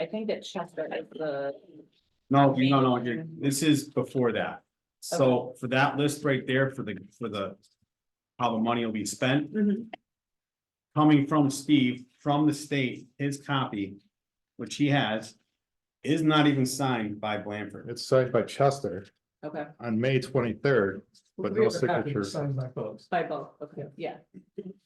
I think that Chester is the, No, no, no, you're, this is before that. So for that list right there, for the, for the. How the money will be spent, coming from Steve, from the state, his copy, which he has. Is not even signed by Blanford. It's signed by Chester okay, on May twenty-third, but We no have a copy signature. Signed by folks, by both, okay, yeah,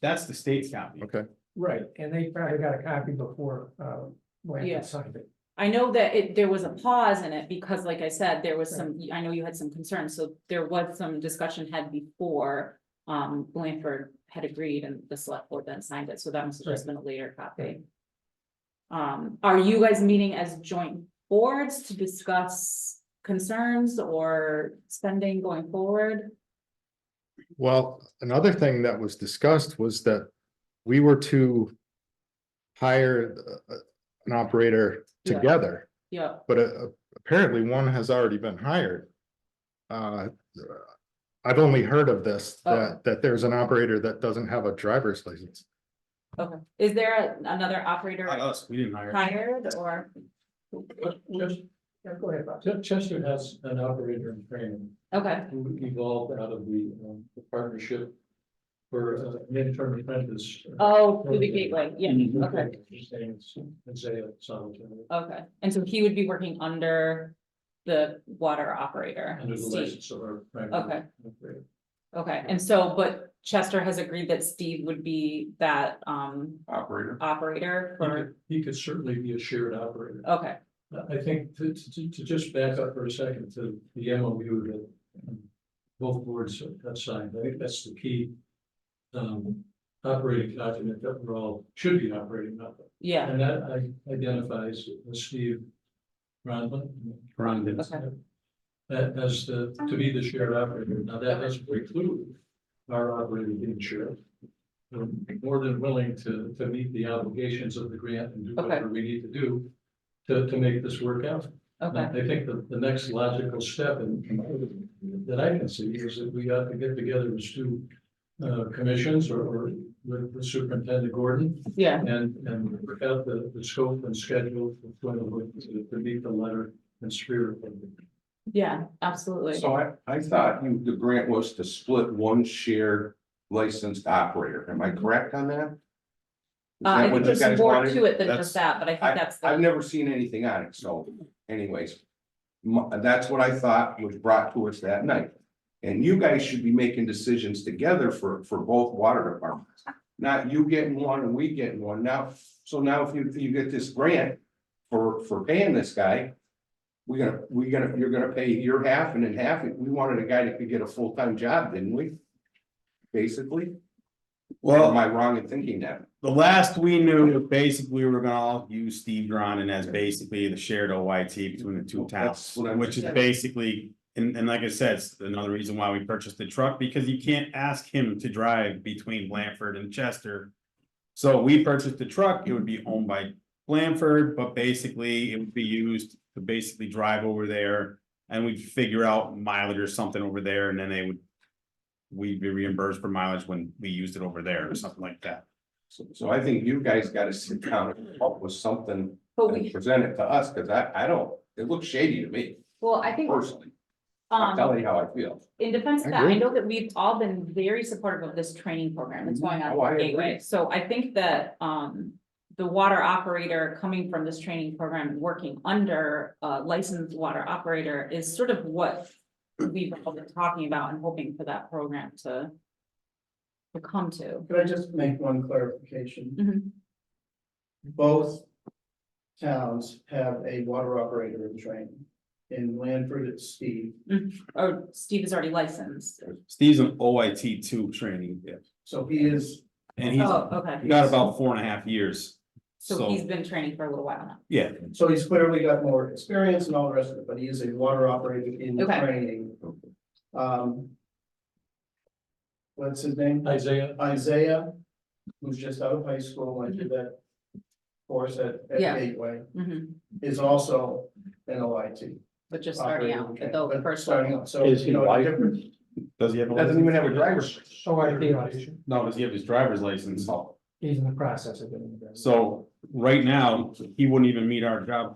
That's the state's copy. Okay, right, and they probably got a copy before, uh, Yeah. Blanford signed it. I know that it, there was a pause in it, because like I said, there was some, I know you had some concerns, so there was some discussion had before. Um, Blanford had agreed and the select board then signed it, so that must have just been a later copy. Um, are you guys meeting as joint boards to discuss concerns or spending going forward? well, another thing that was discussed was that we were to hire uh, an operator Yeah. together, Yeah, but uh, apparently one has already been hired. Uh, I've only heard of this, Oh. that, that there's an operator that doesn't have a driver's license. okay, is there another operator Not us, we didn't hire. hired or, Yeah, go ahead, Bob. Ch- Chester has an operator in training okay, who evolved out of the, um, the partnership for uh, midterm apprentice. oh, through the gateway, yeah, okay. His name is Isaiah Solomon, Okay, and so he would be working under the water operator. under the Steve. license of our. Okay. Okay, and so, but Chester has agreed that Steve would be that um Operator. operator He for, could- He could certainly be a shared operator. okay, I- I think to, to, to- to just back up for a second to the MOU that um, both boards have signed, I think that's the key. Um, operating document that we're all, should be operating on. yeah, And that I- identifies Steve Ronlin. Ron Okay. That as the, to be the shared operator. Now, that doesn't preclude our operator being shared. We're more than willing to, to meet the obligations of the grant and do Okay. whatever we need to do to, to make this work out. And okay, I think the, the next logical step in, in- that I can see is that we ought to get together as two uh, commissions or, or with with Superintendent Gordon yeah, and, and work out the, the scope and schedule for when to, to meet the letter and spirit of the yeah, absolutely. So I, I thought you, the grant was to split one shared licensed operator. Am I correct on that? Is Uh, I that think what you there's guys more wanted? to it than just that, but I think that's I've the, never seen anything on it, so anyways. mu- that's what I thought was brought to us that night. And you guys should be making decisions together for, for both water departments. Not you getting one and we getting one now. So now if you, you get this grant for, for paying this guy. We're gonna, we're gonna, you're gonna pay your half and then half. We wanted a guy that could get a full-time job, didn't we? Basically, or am Well, I wrong in thinking that? the last we knew, basically, we were gonna all use Steve Dronin as basically the shared OIT between the two towns. That's what I'm- Which is basically, and, and like I said, it's another reason why we purchased the truck, because you can't ask him to drive between Blanford and Chester. So we purchased the truck, it would be owned by Blanford, but basically it would be used to basically drive over there. And we'd figure out mileage or something over there, and then they would. We'd be reimbursed for mileage when we used it over there or something like that. So, so I think you guys gotta sit down and come up with something but and we, present it to us, cause I, I don't, it looks shady to me well, I think, personally. I'm um, telling you how I feel. in defense of I that, I agree. know that we've all been very supportive of this training program that's going Oh, on I at agree. Gateway. So I think that, um, the water operator coming from this training program and working under a licensed water operator is sort of what we've all been talking about and hoping for that program to to come to. Could I just make one clarification? Mhm. Both towns have a water operator in training. In Lanford, it's Steve. Or Oh, Steve is already licensed. Steve's an OIT two training, So he is, and he's Oh, okay. got about four and a half years. So he's So, been training for a little while now. yeah, so he's clearly got more experience and all the rest of it, but he is a water operator in Okay. training. Um. What's his name? Isaiah, Isaiah, who's just out of high school, went through that course at, at Yeah. Gateway, Mhm. is also an OIT. But just starting out, at the first Starting level. out, so, you know, the difference, does he have? a Doesn't even have a license? Oh, driver's. license. So I think, No, does he have his driver's license? So, he's in the process of getting it. done. So right now, he wouldn't even meet our job